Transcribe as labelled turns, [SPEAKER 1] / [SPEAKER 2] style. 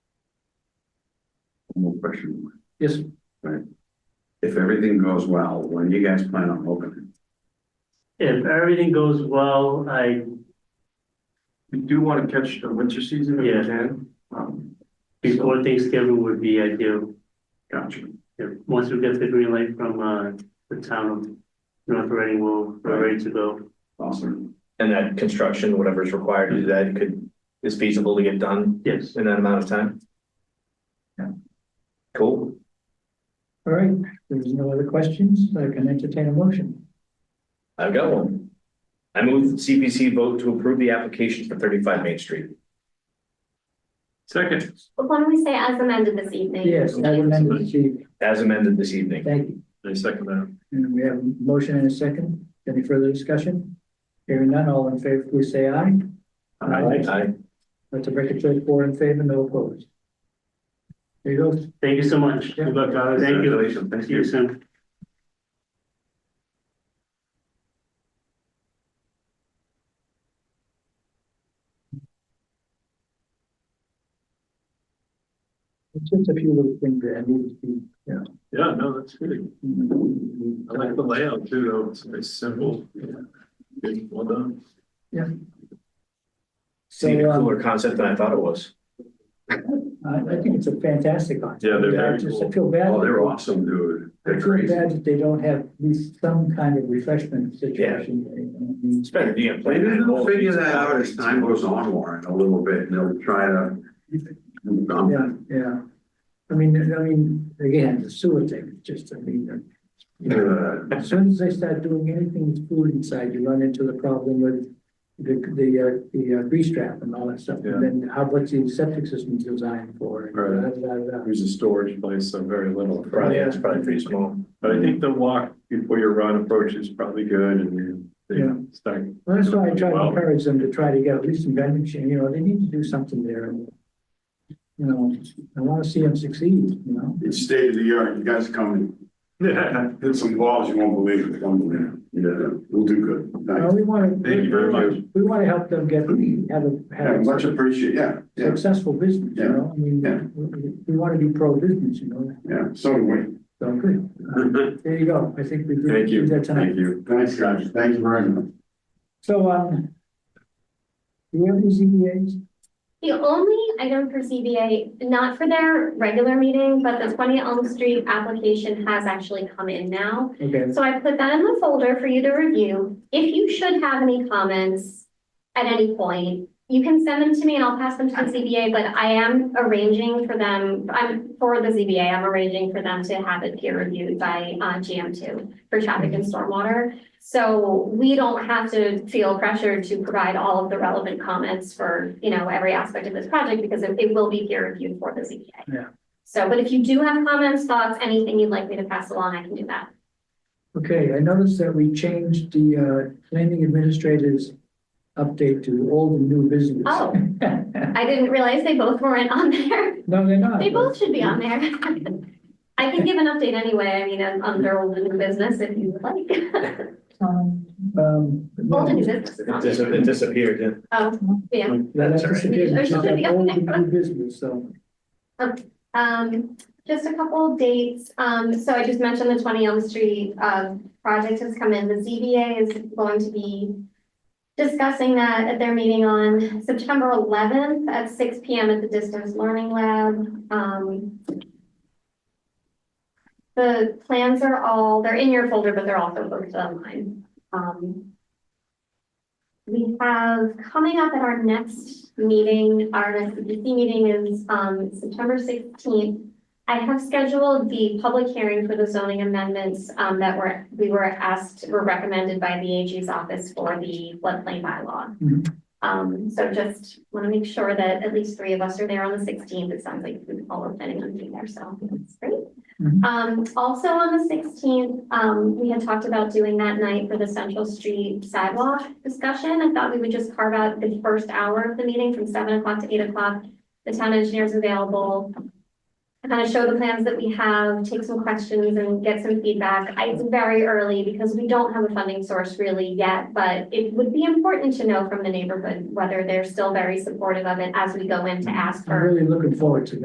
[SPEAKER 1] more question.
[SPEAKER 2] Yes.
[SPEAKER 1] If everything goes well, when you guys plan on opening?
[SPEAKER 2] If everything goes well, I,
[SPEAKER 3] We do want to catch the winter season if
[SPEAKER 2] Yeah.
[SPEAKER 3] we can. Um,
[SPEAKER 2] before Thanksgiving would be ideal.
[SPEAKER 3] gotcha.
[SPEAKER 2] If, once we get the green light from, uh, the town of North Reading, we'll, we're ready to go.
[SPEAKER 1] Awesome.
[SPEAKER 4] And that construction, whatever's required to do that, could, is feasible to get done
[SPEAKER 2] Yes.
[SPEAKER 4] in that amount of time? Yeah. Cool.
[SPEAKER 5] All right, if there's no other questions, I can entertain a motion.
[SPEAKER 4] I've got one. I move CPC vote to approve the application for thirty-five Main Street.
[SPEAKER 3] Second,
[SPEAKER 6] But why don't we say as amended this evening?
[SPEAKER 5] Yes, as amended, this evening.
[SPEAKER 4] As amended this evening.
[SPEAKER 5] thank you.
[SPEAKER 3] I second that.
[SPEAKER 5] And we have a motion and a second. Any further discussion? Hearing none, all in favor, please say aye.
[SPEAKER 3] Aye.
[SPEAKER 4] Aye.
[SPEAKER 5] Let the record show four in favor, no opposed. There you go.
[SPEAKER 2] Thank you so much.
[SPEAKER 5] Yeah.
[SPEAKER 2] Good luck, guys. Thank you.
[SPEAKER 1] Congratulations. Thank
[SPEAKER 2] See you
[SPEAKER 1] you.
[SPEAKER 2] soon.
[SPEAKER 5] It's Just a few little things that I need to be, you know.
[SPEAKER 3] Yeah, no, that's good. I like the layout too, though. It's very simple. Good, Well done.
[SPEAKER 4] It's even
[SPEAKER 5] So, um,
[SPEAKER 4] cooler concept than I thought it was.
[SPEAKER 5] I, I think it's a fantastic idea.
[SPEAKER 3] Yeah, they're
[SPEAKER 5] I
[SPEAKER 3] very
[SPEAKER 5] just
[SPEAKER 3] cool.
[SPEAKER 5] feel bad.
[SPEAKER 1] Oh, they're awesome, dude.
[SPEAKER 5] I
[SPEAKER 1] They're
[SPEAKER 5] feel
[SPEAKER 1] crazy.
[SPEAKER 5] bad that they don't have at least some kind of refreshment situation. I mean,
[SPEAKER 4] It's better, you know.
[SPEAKER 1] Maybe they'll figure that out as time goes on, Warren, a little bit, and they'll try to. Um,
[SPEAKER 5] Yeah, yeah. I mean, I mean, again, the sewer thing, just, I mean, uh, you know,
[SPEAKER 1] uh,
[SPEAKER 5] as soon as they start doing anything with food inside, you run into the problem with the, the, uh, the uh, grease trap and all that stuff.
[SPEAKER 3] Yeah.
[SPEAKER 5] And then how, what's the septic system designed for? and
[SPEAKER 3] Right.
[SPEAKER 5] da, da, da, da.
[SPEAKER 3] There's a storage place, so very little.
[SPEAKER 4] Probably, yeah, it's probably pretty small.
[SPEAKER 3] But I think the walk before your run approach is probably good and they
[SPEAKER 5] Yeah.
[SPEAKER 3] start.
[SPEAKER 5] Well, that's why I try to
[SPEAKER 3] Wow.
[SPEAKER 5] encourage them to try to get at least some vending machine, you know, they need to do something there. You know, I wanna see them succeed, you know?
[SPEAKER 7] It's state of the art. You guys come
[SPEAKER 3] Yeah.
[SPEAKER 7] and hit some walls you won't believe it. Unbelievable. Yeah, we'll do good.
[SPEAKER 5] No,
[SPEAKER 7] Thanks.
[SPEAKER 5] we wanna.
[SPEAKER 3] Thank you very much.
[SPEAKER 5] We wanna help them get, have a.
[SPEAKER 7] Yeah, Much appreciated. Yeah, yeah,
[SPEAKER 5] successful business, you
[SPEAKER 7] Yeah.
[SPEAKER 5] know, I
[SPEAKER 7] Yeah.
[SPEAKER 5] mean, we, we wanna be pro-business, you know,
[SPEAKER 7] yeah. So do we.
[SPEAKER 5] so good. There you go, I think we did
[SPEAKER 3] Thank you.
[SPEAKER 5] did that
[SPEAKER 7] Thank
[SPEAKER 5] tonight.
[SPEAKER 7] you. Thanks, guys. Thank you very much.
[SPEAKER 5] So, um, do you have any ZBAs?
[SPEAKER 6] The only item for CBA, not for their regular meeting, but the twenty Elm Street application has actually come in now.
[SPEAKER 5] Okay,
[SPEAKER 6] So I put that in the folder for you to review. If you should have any comments at any point, you can send them to me and I'll pass them to the CBA, but I am arranging for them, I'm, for the ZBA, I'm arranging for them to have it peer reviewed by, uh, GM two for traffic and stormwater. So we don't have to feel pressured to provide all of the relevant comments for, you know, every aspect of this project because it, it will be peer reviewed for the ZBA.
[SPEAKER 5] Yeah.
[SPEAKER 6] So, but if you do have comments, thoughts, anything you'd like me to pass along, I can do that.
[SPEAKER 5] okay, I noticed that we changed the, uh, planning administrator's update to old and new business.
[SPEAKER 6] Oh. I didn't realize they both weren't on there.
[SPEAKER 5] No, they're not.
[SPEAKER 6] They both should be on there. I can give an update anyway, I mean, I'm under old and new business if you would like.
[SPEAKER 5] Um.
[SPEAKER 6] Old and new business is
[SPEAKER 4] It
[SPEAKER 6] on there.
[SPEAKER 4] dis- it disappeared, yeah.
[SPEAKER 6] Oh, yeah.
[SPEAKER 4] That's
[SPEAKER 5] That's
[SPEAKER 4] all right.
[SPEAKER 5] disappeared.
[SPEAKER 6] There
[SPEAKER 5] It's
[SPEAKER 6] should
[SPEAKER 5] not
[SPEAKER 6] be
[SPEAKER 5] old
[SPEAKER 6] on
[SPEAKER 5] and new business, so.
[SPEAKER 6] Um, just a couple of dates. Um, so I just mentioned the twenty Elm Street, uh, project has come in. The ZBA is going to be discussing that at their meeting on September eleventh at six P M at the Distance Learning Lab. Um, the plans are all, they're in your folder, but they're also posted online. Um, we have coming up at our next meeting, our next CPC meeting is um September sixteenth. I have scheduled the public hearing for the zoning amendments um that were, we were asked, were recommended by the AG's office for the floodplain bylaw.
[SPEAKER 5] Mhm.
[SPEAKER 6] Um, so just want to make sure that at least three of us are there on the sixteenth. It sounds like we all are planning on being there, so that's great.
[SPEAKER 5] Mhm.
[SPEAKER 6] Um, also on the sixteenth, um, we had talked about doing that night for the Central Street sidewalk discussion. I thought we would just carve out the first hour of the meeting from seven o'clock to eight o'clock. The town engineer's available. Kind of show the plans that we have, take some questions and get some feedback. I- It's very early because we don't have a funding source really yet, but it would be important to know from the neighborhood whether they're still very supportive of it as we go in to ask
[SPEAKER 5] I'm
[SPEAKER 6] for
[SPEAKER 5] really looking forward to that.